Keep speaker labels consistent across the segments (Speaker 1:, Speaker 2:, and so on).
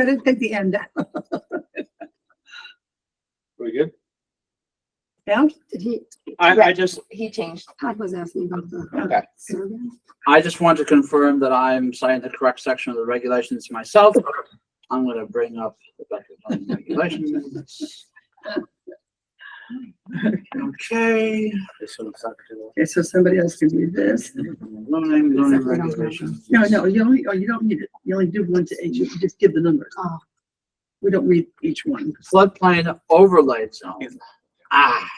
Speaker 1: I didn't take the end out.
Speaker 2: Very good.
Speaker 1: Down?
Speaker 3: Did he,
Speaker 4: I, I
Speaker 3: Right.
Speaker 4: just,
Speaker 3: he changed,
Speaker 1: Todd was asking about the
Speaker 4: okay,
Speaker 1: survey.
Speaker 4: I just want to confirm that I'm citing the correct section of the regulations myself. I'm gonna bring up the Becker zoning regulations. minutes.
Speaker 1: Okay,
Speaker 4: Okay.
Speaker 1: so somebody else can do this.
Speaker 4: Zoning, zoning regulations.
Speaker 1: No, no, you only, oh, you don't need it. You only do one to each. You can just give the numbers.
Speaker 3: Oh.
Speaker 1: We don't read each one.
Speaker 4: Floodplain overlay zone. Ah,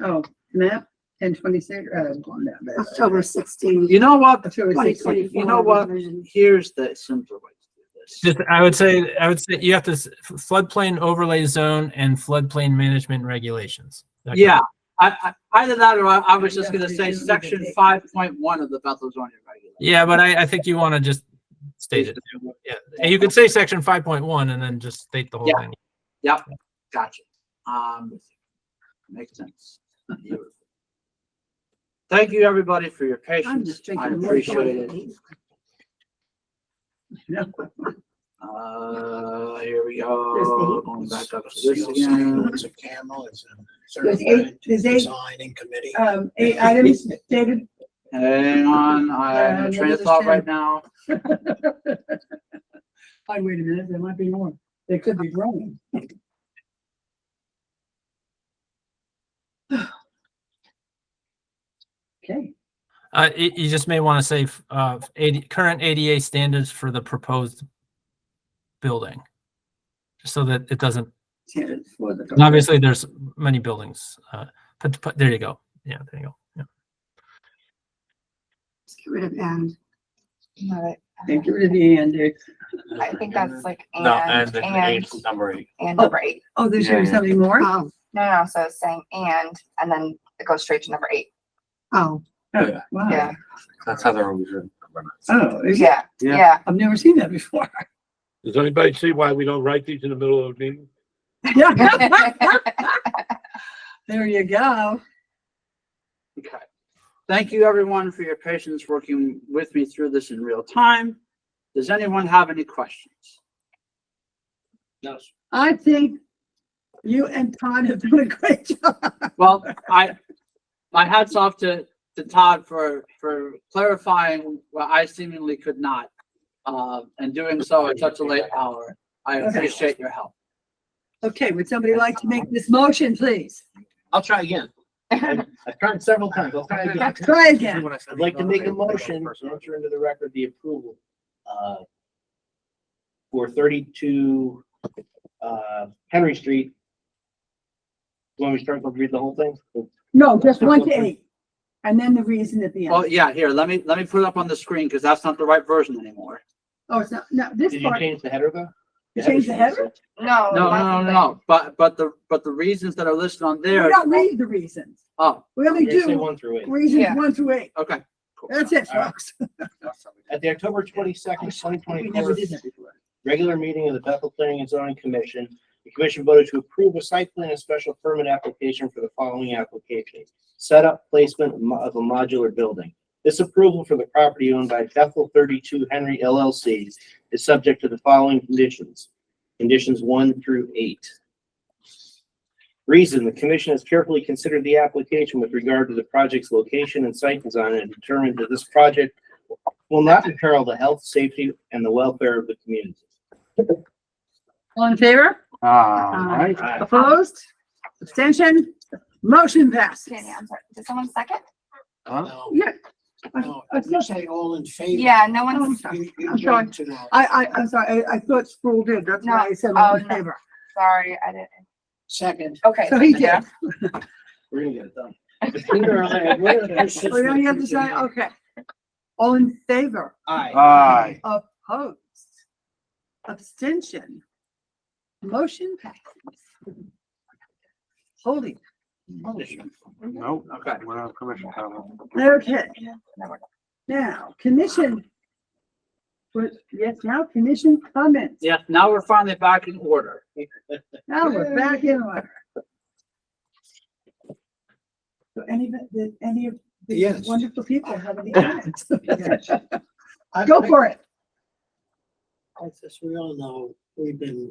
Speaker 1: Oh, map, ten twenty-six, uh, going down there.
Speaker 3: October sixteen.
Speaker 4: you know what?
Speaker 1: October
Speaker 4: Like,
Speaker 1: 16.
Speaker 4: You know what? Here's the simpler way to do this.
Speaker 5: Just, I would say, I would say you have to s- floodplain overlay zone and floodplain management regulations. That kind of-
Speaker 4: Yeah, I, I, either that or I, I was just gonna say
Speaker 1: Yeah.
Speaker 4: section five point one of the Bethel zoning regulations.
Speaker 5: Yeah, but I, I think you want to just state it. Yeah, and you could say section five point one and then just state the whole
Speaker 4: Yeah.
Speaker 5: thing.
Speaker 4: Gotcha. Um, makes sense. Thank you, everybody, for your
Speaker 1: I'm
Speaker 4: patience.
Speaker 1: just drinking.
Speaker 4: I
Speaker 1: water.
Speaker 4: appreciate it.
Speaker 1: No.
Speaker 4: Uh, here we go, going back up to this again.
Speaker 6: It's a camel, it's a
Speaker 1: There's
Speaker 6: certified
Speaker 1: eight, there's eight,
Speaker 6: designing committee.
Speaker 1: um, eight items David.
Speaker 4: Hang on, I have
Speaker 1: Uh,
Speaker 4: a train of
Speaker 1: another
Speaker 4: thought
Speaker 1: ten.
Speaker 4: right now.
Speaker 1: Oh, wait a minute, there might be more. They could be wrong. Okay,
Speaker 5: Uh, you, you just may want to say, f- uh, AD current ADA standards for the proposed building. Just so that it doesn't,
Speaker 1: ten for the.
Speaker 5: and obviously there's many buildings, uh, but, but there you go. Yeah, there you go. Yeah.
Speaker 3: Just get rid of and.
Speaker 1: Thank you to the end, Dick.
Speaker 7: I think that's like and,
Speaker 6: No, and the
Speaker 7: and,
Speaker 6: eighth number eight.
Speaker 7: and number eight.
Speaker 1: Oh, there's
Speaker 6: Yeah,
Speaker 1: gonna be
Speaker 6: yeah.
Speaker 1: something more?
Speaker 7: Uh,
Speaker 3: Oh,
Speaker 7: No, no, so it's saying and, and then it goes straight to number eight.
Speaker 3: oh,
Speaker 1: Oh,
Speaker 7: Yeah,
Speaker 1: Wow.
Speaker 6: That's how they're always written.
Speaker 1: Oh, is it?
Speaker 7: yeah,
Speaker 2: Yeah.
Speaker 7: yeah.
Speaker 1: I've never seen that before.
Speaker 2: Does anybody see why we don't write these in the middle of a meeting?
Speaker 1: There you go.
Speaker 4: Okay. Thank you, everyone, for your patience working with me through this in real time. Does anyone have any questions? No. sir.
Speaker 1: I think you and Todd have done a great job.
Speaker 4: Well, I, my hats off to, to Todd for, for clarifying what I seemingly could not. Uh, and doing so at such a late hour. I
Speaker 1: Okay.
Speaker 4: appreciate your help.
Speaker 1: Okay, would somebody like to make this motion, please?
Speaker 6: I'll try again. I- I've tried several times. I'll try again.
Speaker 1: Try again.
Speaker 6: I'd like to make a motion, to enter into the record the approval, uh, for thirty-two, uh, Henry Street. You Want me to start, to read the whole thing?
Speaker 1: No, just one to eight. And then the reason at the
Speaker 4: Well,
Speaker 1: end.
Speaker 4: yeah, here, let me, let me put it up on the screen because that's not the right version anymore.
Speaker 1: Oh, it's not, no, this
Speaker 6: Did you
Speaker 1: part,
Speaker 6: change the header though?
Speaker 1: you change the header?
Speaker 6: Oh,
Speaker 7: No.
Speaker 4: No, no,
Speaker 7: that's
Speaker 4: no,
Speaker 7: the-
Speaker 4: no, but, but the, but the reasons that are listed on
Speaker 1: We
Speaker 4: there.
Speaker 1: don't read the reasons.
Speaker 4: Oh,
Speaker 1: We only
Speaker 6: You're gonna say
Speaker 1: do
Speaker 6: one through eight.
Speaker 1: reasons
Speaker 7: Yeah.
Speaker 1: one through eight.
Speaker 4: okay. cool.
Speaker 1: That's it,
Speaker 6: All right.
Speaker 1: folks.
Speaker 6: At the October twenty-second, twenty
Speaker 1: We never
Speaker 6: twenty-four
Speaker 1: did that before.
Speaker 6: regular meeting of the Bethel Planning and Zoning Commission, the commission voted to approve a site plan and special permit application for the following application. Setup placement of mo- of a modular building. This approval for the property owned by Bethel thirty-two Henry LLC is subject to the following conditions. Conditions one through eight. Reason, the commission has carefully considered the application with regard to the project's location and site design and determined that this project will not imperil the health, safety, and the welfare of the community.
Speaker 1: All in favor?
Speaker 4: Ah,
Speaker 3: Aye.
Speaker 1: Opposed? Abstention? Motion passes.
Speaker 7: Jenny, I'm sorry. Did someone second?
Speaker 6: No,
Speaker 1: Yeah,
Speaker 6: no, I would say all in favor.
Speaker 7: Yeah, no
Speaker 1: Oh, I'm
Speaker 7: one's,
Speaker 1: sorry.
Speaker 6: You- you
Speaker 1: I'm sorry.
Speaker 6: need to know.
Speaker 1: I, I, I'm sorry, I, I thought Sproul did, that's why I said all in
Speaker 7: No, oh, no.
Speaker 1: favor.
Speaker 7: sorry, I didn't.
Speaker 6: Second.
Speaker 7: Okay.
Speaker 1: So he did.
Speaker 7: yeah.
Speaker 6: We're gonna get it done.
Speaker 1: Oh, now you have to say, okay. All in favor,
Speaker 4: Aye.
Speaker 1: opposed, abstention, motion passes. Holy,
Speaker 8: Nope,
Speaker 4: okay.
Speaker 8: we're not commission comment.
Speaker 1: okay,
Speaker 7: No, we're-
Speaker 1: now, commission. Well, Yes, now commission comments,
Speaker 4: Yes, now we're finally back in order.
Speaker 1: now we're back in order. So any, did any of these
Speaker 6: Yes.
Speaker 1: wonderful people have any comments? Go for it.
Speaker 6: As we all know,
Speaker 9: we've been